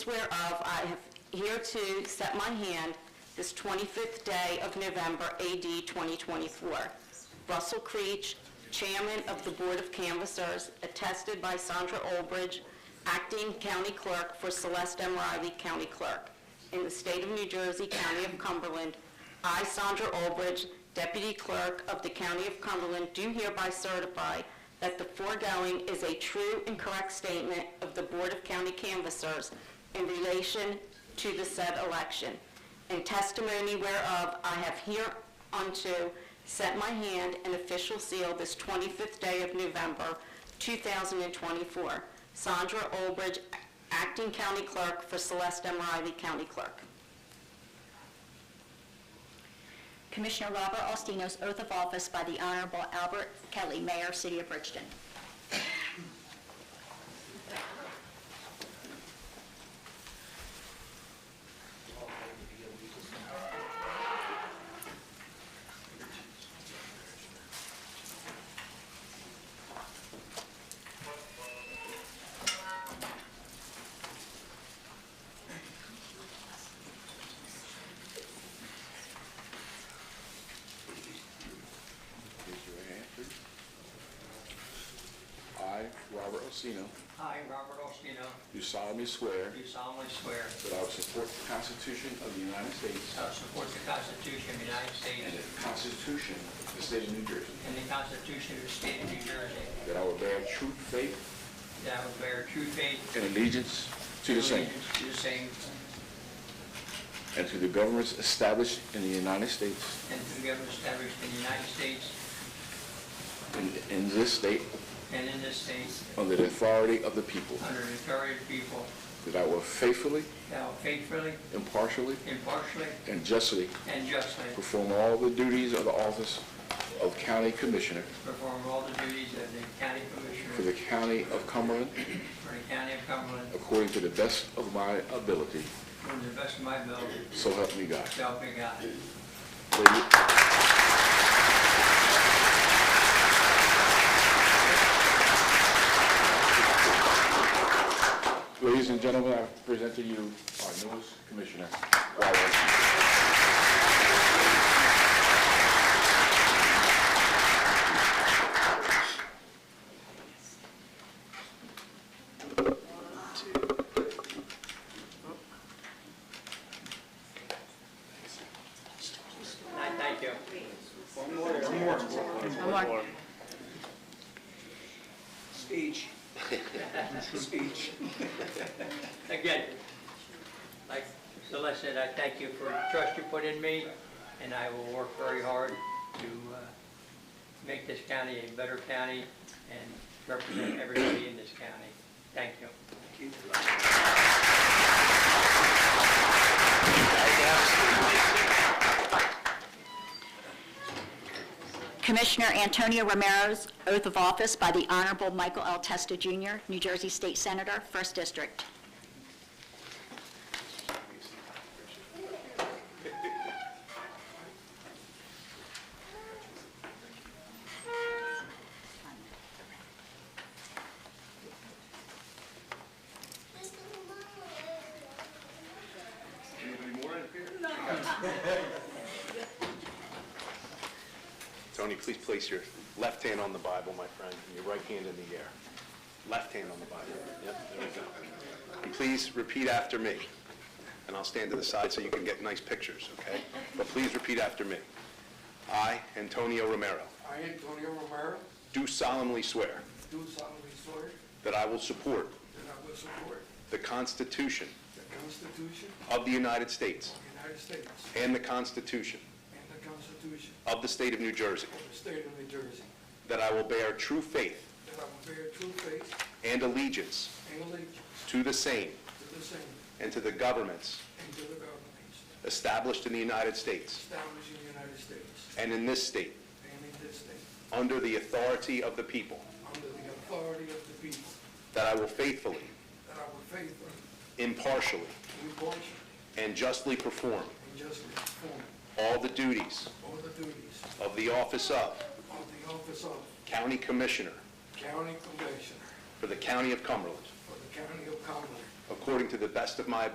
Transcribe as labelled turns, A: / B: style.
A: whereof I have hereto set my hand this 25th day of November, AD 2024. Russell Creech, Chairman of the Board of Canvassers, attested by Sandra Olbridge, Acting County Clerk for Celeste M. Riley, County Clerk, in the state of New Jersey, County of Cumberland. I, Sandra Olbridge, Deputy Clerk of the County of Cumberland, do hereby certify that the foregoing is a true and correct statement of the Board of County Canvassers in relation to the said election. In testimony whereof, I have hereunto set my hand and official seal this 25th day of November, 2024. Sandra Olbridge, Acting County Clerk for Celeste M. Riley, County Clerk.
B: Commissioner Robert Alstino's oath of office by the Honorable Albert Kelly, Mayor, City of Bridgeton.
C: Raise your right hand, please. I, Robert Osino,
D: I, Robert Ostino,
C: do solemnly swear
D: do solemnly swear
C: that I will support the Constitution of the United States
D: that I will support the Constitution of the United
C: and
D: States
C: the Constitution of the State of New Jersey,
D: and the Constitution of the State of New Jersey,
C: that I will bear true faith
D: that I will bear true faith
C: and allegiance to
D: and
C: the same
D: allegiance to the same
C: and to the governments established in the United States
D: and to the government established in the United States
C: and in this state
D: and in this state
C: under the authority of the people,
D: under the authority of the people,
C: that I will faithfully,
D: that I will faithfully,
C: impartially,
D: impartially,
C: and justly
D: and justly
C: perform all the duties of the office of County Commissioner
D: perform all the duties of the County
C: for the
D: Commissioner
C: County of Cumberland
D: for the County of Cumberland
C: according to the best of my ability.
D: to the best of my ability,
C: So help me God.
D: so help me God.
C: Lady- Ladies and gentlemen, I present to you our newest commissioner, Robert.
D: All right, Thank you.
E: Speech. Speech.
D: Again, like Celeste said, I thank you for the trust you put in me, and I will work very hard to uh, make this county a better county and represent everybody in this county. Thank you.
B: Commissioner Antonio Romero's oath of office by the Honorable Michael L. Testa, Jr., New Jersey State Senator, 1st District.
F: Tony, please place your left hand on the Bible, my friend, and your right hand in the air. Left hand on the Bible. Yep, there we go. And please repeat after me, and I'll stand to the side so you can get nice pictures, okay? But please repeat after me. I, Antonio Romero,
G: I, Antonio Romero,
F: do solemnly swear
G: do solemnly swear
F: that I will support
G: that I will support
F: the Constitution
G: the Constitution
F: of the United States
G: of the United States
F: and the Constitution
G: and the Constitution
F: of the State of New Jersey,
G: of the State of New Jersey,
F: that I will bear true faith
G: that I will bear true faith
F: and allegiance
G: and allegiance
F: to the same
G: to the same
F: and to the governments
G: and to the governments
F: established in the United States
G: established in the United States
F: and in this state,
G: and in this state,
F: under the authority of the people,
G: under the authority of the people,
F: that I will faithfully,
G: that I will faithfully,
F: impartially,
G: impartially,
F: and justly perform
G: and justly perform
F: all the duties
G: all the duties
F: of the office of
G: of the office of
F: County Commissioner
G: County Commissioner
F: for the County of Cumberland,
G: for the County of Cumberland,
F: ac- according to the best of my